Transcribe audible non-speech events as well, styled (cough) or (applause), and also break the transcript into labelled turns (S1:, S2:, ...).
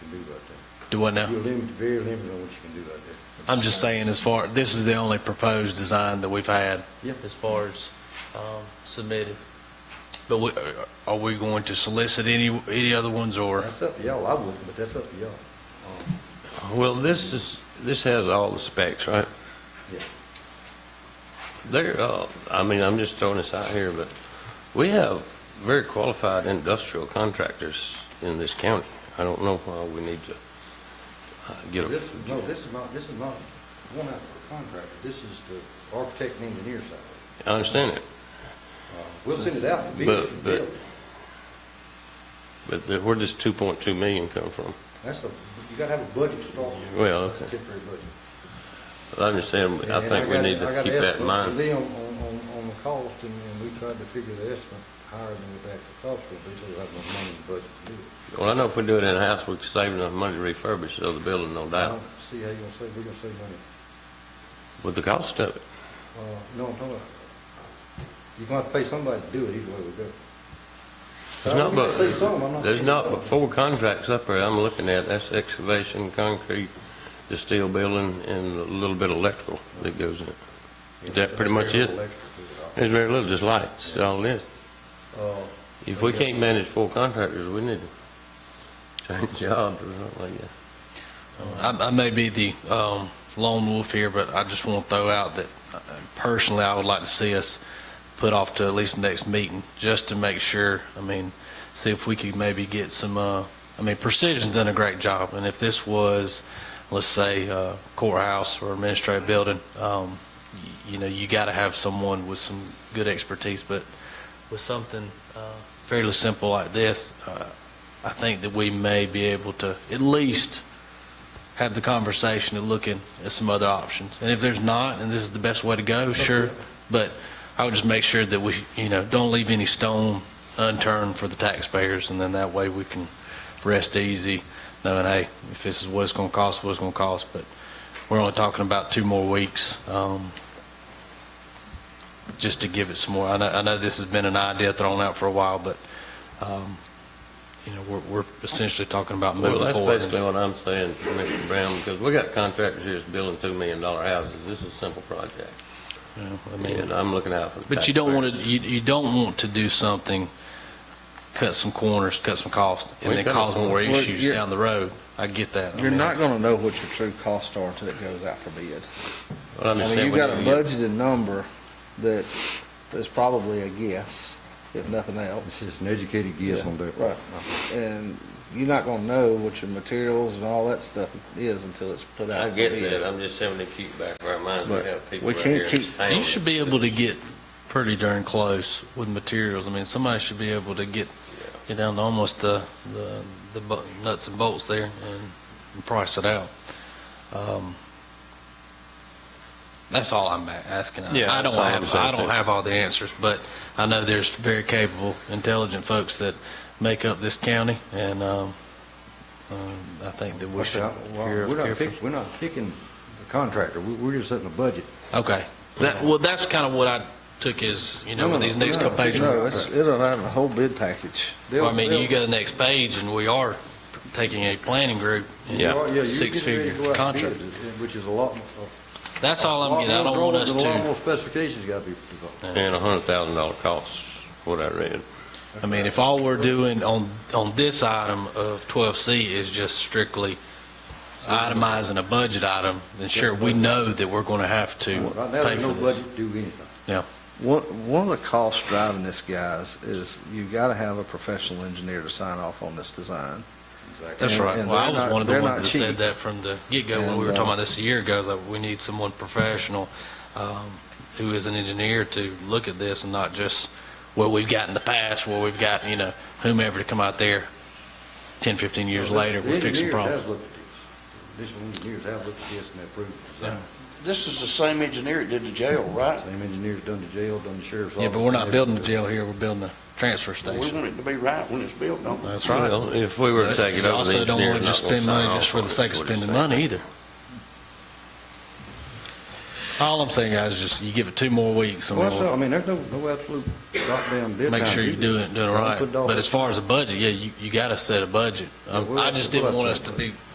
S1: Do what now?
S2: You're limited, very limited on what you can do like that.
S1: I'm just saying as far, this is the only proposed design that we've had,
S3: as far as um, submitted.
S1: but we, are- are we going to solicit any, any other ones or?
S2: That's up to y'all, I wouldn't, but that's up to y'all. Um,
S4: Well, this is, this has all the specs, right?
S2: Yeah.
S4: There, uh, I mean, I'm just throwing this out here, but we have very qualified industrial contractors in this county. I don't know why we need to uh, get
S2: This,
S4: a,
S2: no, this is not, this is not one out for a contractor, this is the architect and engineer side.
S4: I understand it,
S2: Uh, We'll send it out to
S4: But-
S2: bidders for
S4: but-
S2: bidding.
S4: but the- where does 2.2 million come from?
S2: That's a, you gotta have a budget to start. with.
S4: Well,
S2: That's a
S4: okay.
S2: Temporary budget.
S4: I understand,
S2: And-
S4: I
S2: and
S4: think we
S2: got-
S4: need
S2: I
S4: to
S2: got
S4: keep
S2: an
S4: that in
S2: estimate
S4: mind.
S2: for them on, on, on the cost, and, and we tried to figure the estimate higher than what the actual cost would be, so we have no money in the budget to do it.
S4: Well, I know if we do it in-house, we can save enough money to refurbish the other building, no
S2: I
S4: doubt,
S2: don't see how you're gonna save, we're gonna save money.
S4: with the cost of it.
S2: Uh, no, I'm talking about, you're gonna have to pay somebody to do it either way we go.
S4: There's
S2: Uh,
S4: not
S2: we
S4: but,
S2: can save some, I'm not
S4: there's
S2: saying
S4: not
S2: no.
S4: but four contracts up there I'm looking at, that's excavation, concrete, the steel building, and a little bit of electrical that goes in. Is that pretty much it? There's very little, just lights, all it is.
S2: Uh,
S4: If we can't manage four contractors, we need to change (laughs) jobs or something like that.
S1: I, I may be the um, lone wolf here, but I just want to throw out that uh, personally, I would like to see us put off to at least the next meeting, just to make sure, I mean, see if we could maybe get some, uh, I mean, Precision's done a great job, and if this was, let's say, uh, courthouse or administrative building, um, y- you know, you got to have someone with some good expertise, but with something uh, fairly simple like this, uh, I think that we may be able to at least have the conversation and looking at some other options. And if there's not, and this is the best way to go, sure, but I would just make sure that we, you know, don't leave any stone unturned for the taxpayers, and then that way we can rest easy knowing, hey, if this is what it's going to cost, what it's going to cost, but we're only talking about two more weeks, um, just to give it some more. I know, I know this has been an idea thrown out for a while, but, um, you know, we're, we're essentially talking about
S4: Well,
S1: moving
S4: that's
S1: forward.
S4: basically what I'm saying, Commissioner Brown, because we got contractors here that's building $2 million houses. This is a simple project,
S1: You know, I mean,
S4: and I'm looking out for the
S1: But you don't want to,
S4: taxpayers.
S1: you, you don't want to do something, cut some corners, cut some costs, and
S4: We've
S1: then
S4: done it
S1: cause more
S4: before.
S1: issues
S5: you're-
S1: down the road. I get that. I
S5: You're
S1: mean,
S5: not gonna know what your true costs are till it goes out for bid.
S4: Well, I
S5: I mean,
S4: understand
S5: you've
S4: we
S5: got a
S4: need to get-
S5: budgeted number that is probably a guess, if nothing else.
S2: This is an educated guess on their part.
S5: Right. And you're not gonna know what your materials and all that stuff is until it's put out.
S4: I
S5: for
S4: get
S5: bid.
S4: that, I'm just having to keep back of our minds, we
S5: But
S4: have people
S5: we
S4: right
S5: can't
S4: here in this
S5: keep-
S4: town.
S1: You should be able to get pretty darn close with materials. I mean, somebody should be able to get, get down to almost the, the, the bu- nuts and bolts there and price it out. Um, That's all I'm a- asking. I-
S4: Yeah,
S1: I don't
S4: that's all I'm
S1: have,
S4: saying,
S1: I don't
S4: too.
S1: have all the answers, but I know there's very capable, intelligent folks that make up this county, and, um, um, I think that we
S2: Like I
S1: should
S2: said, I-
S1: hear,
S2: We're
S1: hear
S2: not
S1: from
S2: picking, we're not picking the contractor, We- we're just setting a budget.
S1: Okay. That, well, that's kind of what I took as, you know, with these next couple pages.
S5: No, it's, it'll have a whole bid package.
S1: Well, I mean, you go to the next page, and we are taking a planning group
S4: Yeah.
S2: You are-
S1: and
S2: you're getting ready to go
S1: six-figure
S2: out to
S1: contract.
S2: bid, Which is a lot. more-
S1: That's all I'm getting. I don't want us
S2: A lot more
S1: to,
S2: specifications gotta be developed.
S4: And a hundred thousand dollar cost, what I read.
S1: I mean, if all we're doing on, on this item of 12C is just strictly itemizing a budget item, then sure, we know that we're going to have to
S2: Right now,
S1: pay
S2: there's no
S1: for this.
S2: budget to do anything.
S5: One, one of the costs driving this, guys, is you've gotta have a professional engineer to sign off on this design.
S1: That's
S5: And-
S1: right.
S5: and
S1: Well, I
S5: they're
S1: was
S5: not-
S1: one of the
S5: they're
S1: ones
S5: not
S1: that
S5: cheap.
S1: said that from the get-go when we
S5: And,
S1: were talking
S5: uh,
S1: about this a year ago, is that we need someone professional um, who is an engineer to look at this and not just what we've got in the past, where we've got, you know, whomever to come out there 10, 15 years later, we're fixing problems.
S2: The engineers have looked at this. Additional engineers have looked at this and approved the design.
S6: This is the same engineer that did the jail, right?
S2: Same engineers done the jail, done the sheriff's office.
S1: Yeah, but we're not building a jail here, we're building a transfer
S6: We
S1: station.
S6: want it to be right when it's built, don't we?
S1: That's right.
S4: Well, if we were to take it over, the
S1: Also, don't
S4: engineer's
S1: want to
S4: not
S1: just
S4: gonna
S1: spend
S4: sign
S1: money
S4: off
S1: just for
S4: on
S1: the
S4: it,
S1: sake of
S4: is what he's
S1: spending
S4: saying.
S1: money either. All I'm saying, guys, is just you give it two more weeks and
S2: Well,
S1: we'll
S2: so, I mean, there's no, no absolute goddamn deadline.
S1: make sure you do it, doing it
S2: Don't
S1: right.
S2: put
S1: But
S2: dollars-
S1: as far as the budget, yeah, you, you gotta set a budget.
S2: Yeah,
S1: Um,
S2: we'll-
S1: I just
S2: we'll
S1: didn't
S2: have
S1: want us
S2: to
S1: to
S2: set a
S1: be